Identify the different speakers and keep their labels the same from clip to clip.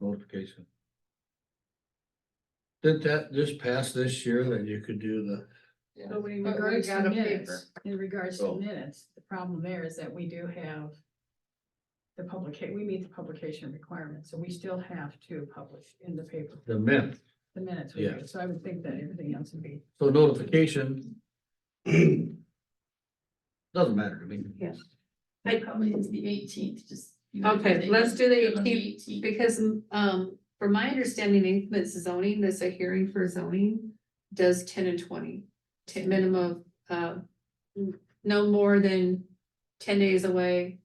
Speaker 1: notification. Did that just pass this year that you could do the?
Speaker 2: But when in
Speaker 3: But we
Speaker 2: regards
Speaker 3: got
Speaker 2: to
Speaker 3: a
Speaker 2: minutes, in regards to
Speaker 1: Oh.
Speaker 2: minutes, the problem there is that we do have. The publica- we meet the publication requirement, so we still have to publish in the paper,
Speaker 1: The mint.
Speaker 2: the minutes we
Speaker 1: Yeah.
Speaker 2: do, so I would think that everything else would be.
Speaker 1: So notification. Doesn't matter to me.
Speaker 3: Yes.
Speaker 4: I probably it's the eighteenth, just. you know,
Speaker 3: Okay,
Speaker 4: they-
Speaker 3: let's do the
Speaker 4: they're on
Speaker 3: 18th, Because, um, from my understanding, increment zoning, that's a hearing for zoning, does ten and twenty. Ten minimum, uh, n- no more than ten days away,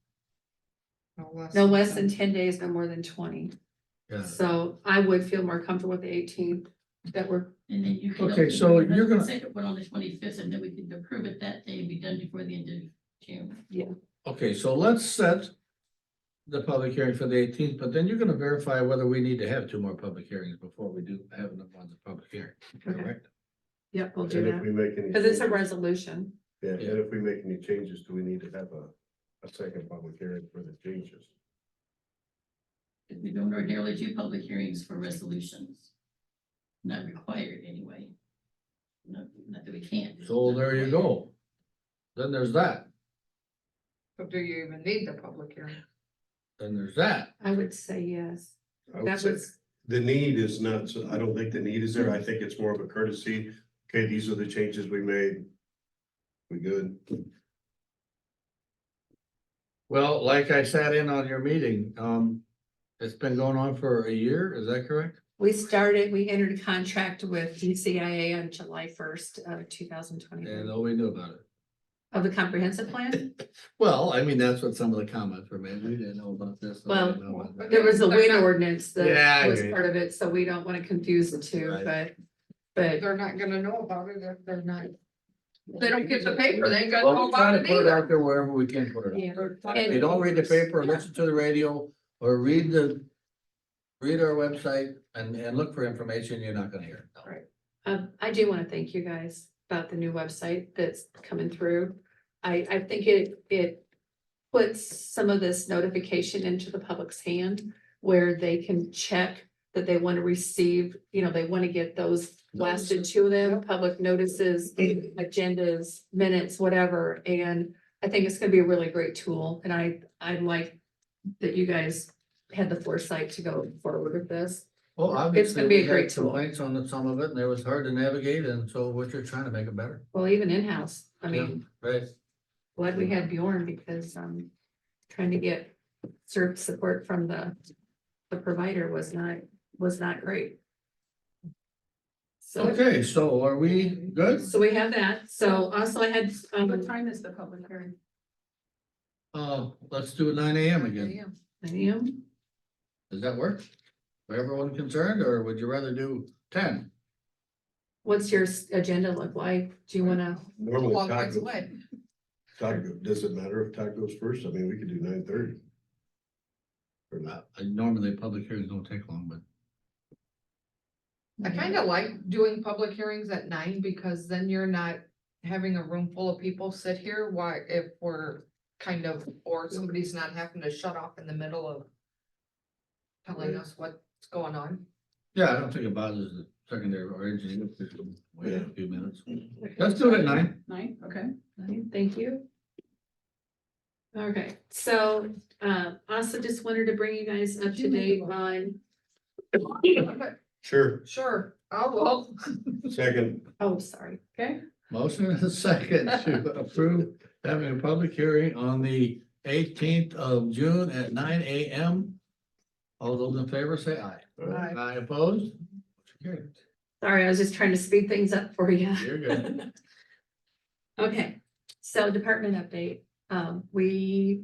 Speaker 3: no less than ten days, no more than twenty.
Speaker 1: Yeah.
Speaker 3: So I would feel more comfortable with the eighteenth, that we're,
Speaker 4: And then you can.
Speaker 1: Okay, so you're gonna-
Speaker 4: Second one on the twenty-fifth, and then we can approve it that day, and be done before the end of June.
Speaker 1: Okay, so let's set. The public hearing for the eighteenth, but then you're gonna verify whether we need to have two more public hearings before we do have them on the public hearing,
Speaker 3: okay,
Speaker 1: correct?
Speaker 3: yep, we'll do
Speaker 5: And if
Speaker 3: that,
Speaker 5: we make any.
Speaker 3: because it's a
Speaker 5: changes-
Speaker 3: resolution.
Speaker 5: Yeah,
Speaker 1: Yeah.
Speaker 5: and if we make any changes, do we need to have a, a second public hearing for the changes?
Speaker 4: Because we don't ordinarily do public hearings for resolutions. Not required anyway. Not, not that we can't. it's
Speaker 1: So
Speaker 4: not
Speaker 1: there you
Speaker 4: required.
Speaker 1: go. Then there's that,
Speaker 6: So do you even need the public hearing?
Speaker 1: then there's that.
Speaker 3: I would say yes,
Speaker 5: I would
Speaker 3: that
Speaker 5: say
Speaker 3: was,
Speaker 5: The need is not, so- I don't think the need is there. I think it's more of a courtesy. Okay, these are the changes we made. We good?
Speaker 1: Well, like I sat in on your meeting, um, it's been going on for a year, is that correct?
Speaker 3: we started, we entered a contract with DCIA on July first of two thousand twenty-one.
Speaker 1: And all we knew about it.
Speaker 3: Of the comprehensive plan?
Speaker 1: Well, I mean, that's what some of the comments were made. We didn't know about this. and we
Speaker 3: Well,
Speaker 1: didn't know about that.
Speaker 3: There was a
Speaker 6: They're
Speaker 3: wind
Speaker 6: not-
Speaker 3: ordinance
Speaker 1: Yeah, I
Speaker 3: that was
Speaker 1: agree.
Speaker 3: part of it, so we don't wanna confuse the two,
Speaker 1: Right.
Speaker 3: but, but
Speaker 6: They're not gonna know about it if they're not, they don't get the paper, they ain't gonna
Speaker 1: Well,
Speaker 6: know
Speaker 1: we try
Speaker 6: about
Speaker 1: to
Speaker 6: it
Speaker 1: put it
Speaker 6: either.
Speaker 1: out there wherever we can put it.
Speaker 3: yeah.
Speaker 1: out. If you don't read the paper, listen to the radio or read the, read our website and, and look for information you're not gonna hear.
Speaker 3: Right. Um, I do wanna thank you guys about the new website that's coming through. I, I think it, it puts some of this notification into the public's hand where they can check that they wanna receive, you know, they wanna get those blasted to them, public notices, agendas, minutes, whatever, and I think it's gonna be a really great tool, and I, I like that you guys had the foresight to go forward with this.
Speaker 1: Well, obviously,
Speaker 3: gonna be a
Speaker 1: we had
Speaker 3: great tool.
Speaker 1: complaints on some of it and it was hard to navigate and so what you're trying to make it better.
Speaker 3: Well, even in-house, I mean,
Speaker 1: Right.
Speaker 3: glad we had Bjorn because um trying to get CERB support from the the provider was not, was not great. So,
Speaker 1: Okay, so are we good?
Speaker 3: so we have that. So also I had,
Speaker 2: What
Speaker 3: um,
Speaker 2: time is the public hearing?
Speaker 1: Uh, let's do it nine AM again.
Speaker 3: I am,
Speaker 1: Does that work? For everyone concerned, or would you rather do ten?
Speaker 3: what's your s- agenda look like? Do you wanna,
Speaker 5: Normally,
Speaker 6: Long ways
Speaker 5: Todd,
Speaker 6: away.
Speaker 5: Todd, go- does it matter if Todd goes first? I mean, we could do nine thirty. Or
Speaker 1: Uh,
Speaker 5: not.
Speaker 1: Normally, public hearings don't take long, but
Speaker 6: I kinda like doing public hearings at nine because then you're not having a room full of people sit here, why, if we're kind of, or somebody's not having to shut off in the middle of telling us what's going on.
Speaker 1: yeah, I don't think it bothers the secondary or engineering system. Wait a few minutes. Let's do it at nine.
Speaker 2: Nine, okay.
Speaker 3: thank you. Okay, so uh also just wanted to bring you guys up to date on,
Speaker 5: Sure,
Speaker 6: Sure, oh, well,
Speaker 5: second,
Speaker 3: oh, sorry.
Speaker 1: Motion and a second to approve having a public hearing on the eighteenth of June at nine AM. All those in favor say aye.
Speaker 5: Aye.
Speaker 1: Aye opposed? Motion
Speaker 3: Sorry, I was just trying to speed things up for you.
Speaker 1: carried. You're good.
Speaker 3: Okay, so department update, um, we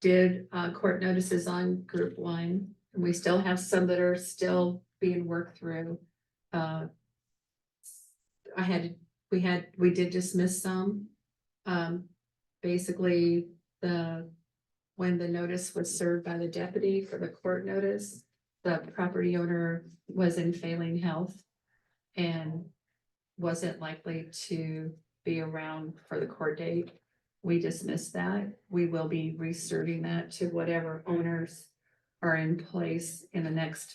Speaker 3: did, uh, court notices on group one. And we still have some that are still being worked through. Uh, I had, we had, we did dismiss some. Um, basically, the, when the notice was served by the deputy for the court notice, the property owner was in failing health and wasn't likely to be around for the court date. We dismissed that. We will be reserving that to whatever owners are in place in the next